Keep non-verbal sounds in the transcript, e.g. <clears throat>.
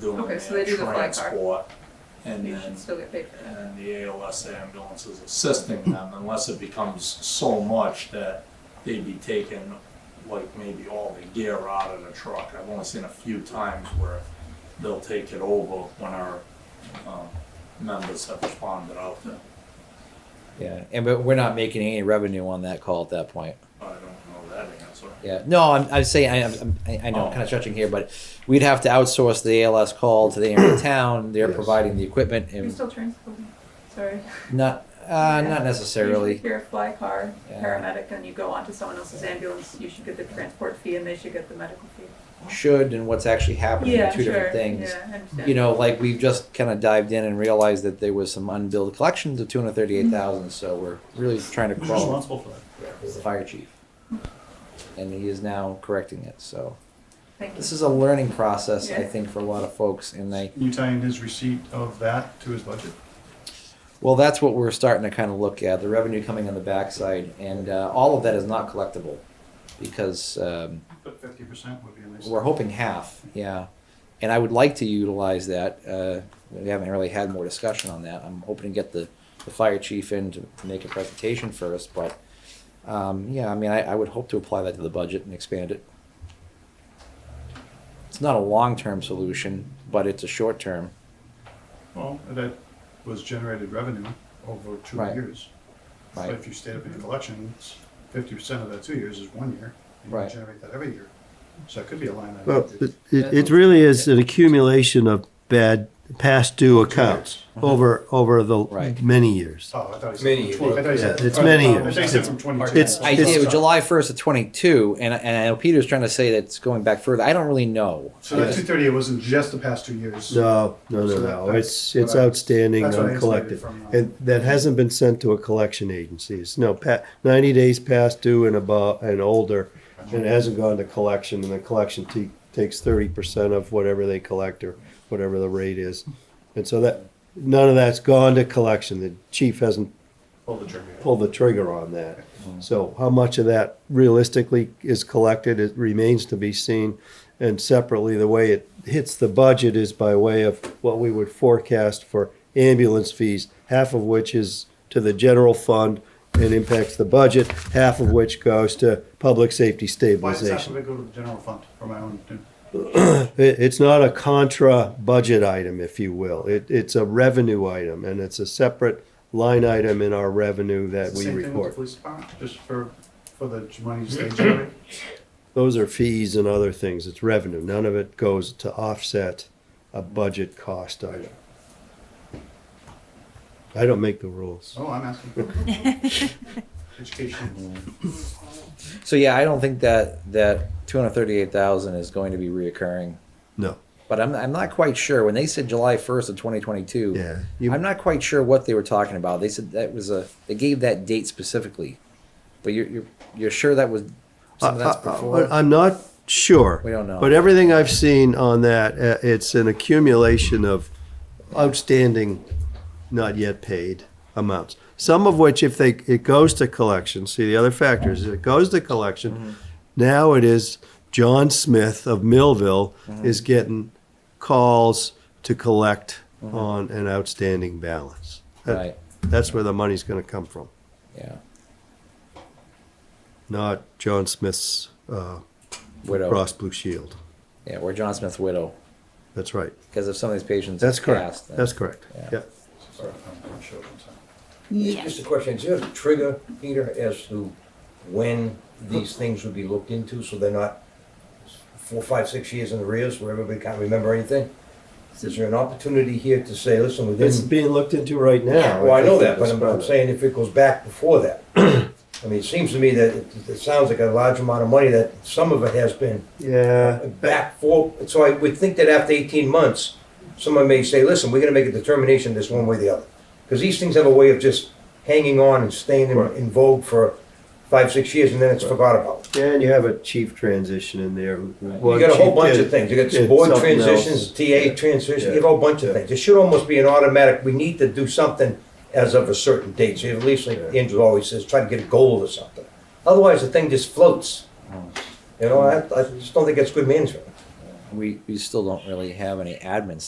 doing Okay, so they do their the fly car. transport. And You then, should still get paid for that. and the ALS ambulance is assisting them unless it becomes so much that they'd be taking like maybe all the gear out of the truck. I've only seen a few times where they'll take it over when our, um, members have responded out there. Yeah, and but we're not making any revenue on that call at that point. I don't know that answer. Yeah, no, I'm, I'm saying I, I'm, I I know I'm kind of stretching here, but we'd have to outsource the ALS call to the area town. They're Yes. providing the equipment You and still transport, sorry. not uh, Yeah. not Usually <laughs> necessarily. if you're a fly car Yeah. paramedic and you go onto someone else's ambulance, you should get the transport fee and they should get the medical fee. Should and what's actually happening Yeah, are two sure, different things. yeah, I understand. You know, like we've just kind of dived in and realized that there was some unbilled collections of two hundred thirty-eight thousand. So we're really trying to Who's crawl. responsible for that? It's the fire chief, and he is now correcting it. So Thank this you. is a learning process, I Yeah. think, for a lot of folks, and I Can you tie in his receipt of that to his budget? Well, that's what we're starting to kind of look at the revenue coming on the backside, and uh, all of that is not collectible because um, But fifty percent would be at least. we're hoping half, yeah. And I would like to utilize that. Uh, we haven't really had more discussion on that. I'm hoping to get the, the fire chief in to make a presentation first, but um, yeah, I mean, I, I would hope to apply that to the budget and expand it. It's not a long term solution, but it's a short term. Well, that was generated revenue over two Right. years. Right. But if you stayed up in collections, fifty percent of that two years is one year. You Right. generate that every year. So it could be a line item. Oh, Well, it, it it really is an accumulation of bad past due accounts over, over the Right. many years. Oh, I thought he said. Many from 20. I thought he said- Yeah, it's many I years. thought he said from twenty-two. It's- I did. It was July 1st of 22, and, and I know Peter's trying to say that it's going back further. I don't really know. So that two thirty, it wasn't just the past two years. No, no, no, So that- no, that's it's, it's what I- outstanding, that's what I uncollected. isolated from, uh, And that hasn't been sent to a collection agency. It's no, pa- ninety days past due and above, and older, and it hasn't gone to collection, and the collection te- takes thirty percent of whatever they collect or whatever the rate is. And so that, none of that's gone to collection. The chief hasn't Pull the trigger. pull the trigger on that. So how much of that realistically is collected, it remains to be seen. And separately, the way it hits the budget is by way of what we would forecast for ambulance fees, half of which is to the general fund and impacts the budget, half of which goes to public safety Why does that have stabilization. to go to the general fund for my own? It, it's not a contra budget item, if you will. It, it's a revenue item and it's a separate line item in our revenue that It's the we same thing with the report. Police department, just for, for the money they <laughs> generate. Those are fees and other things, it's revenue, none of it goes to offset a budget cost item. I don't make the rules. Oh, I'm asking. <laughs> Education. So yeah, I don't think that that 238,000 is going to be reoccurring. No. But I'm, I'm not quite sure. When they said July 1st of 2022, Yeah, you- I'm not quite sure what they were talking about. They said that was a they gave that date specifically, but you're you're, you're sure that was some of that's Uh, before. I, am not sure. We don't know. But everything I've seen on that, uh, it's an accumulation of outstanding, not yet paid amounts. Some of which, if they, it goes to collection, see the other factors, it goes to Mm-hmm. collection. Now it is John Smith of Millville Mm-hmm. is getting calls to collect on an outstanding balance. That- Mm-hmm. right. That's where the money's gonna come from, Yeah. not John Smith's, uh, Widow. Cross Blue Shield. Yeah, or John Smith's widow. That's right. Because if some of these patients That's passed, correct. then- That's correct. Yeah. Yeah. Sorry, I'm- I'm sure I'm sorry. Just a question, is there a trigger, Peter, as to when these things would be looked into, so they're not four, five, six years in arrears where everybody can't remember anything? Is there an opportunity here to say, listen, within? It's being looked into right now. Well, I know that, but I'm, I'm saying if it goes back before that. <clears throat> I mean, it seems to me that it, it sounds like a large amount of money that some of it has been Yeah, back for, so I would think that after eighteen months, someone may say, listen, we're gonna make a determination this one way or the other. Because these things have a way of just hanging on and staying in, in vogue for five, six years, and then it's forgot about. and you have a chief transition in there. You got a whole bunch of things, you got board transitions, TA transition, you have a whole bunch of things. It should almost be an automatic, we need to do something as of a certain date, so you at least, like Andrew always says, try to get a goal or something. Otherwise, the thing just floats. You know, I, I just don't think that's good management. we, we still don't really have any admin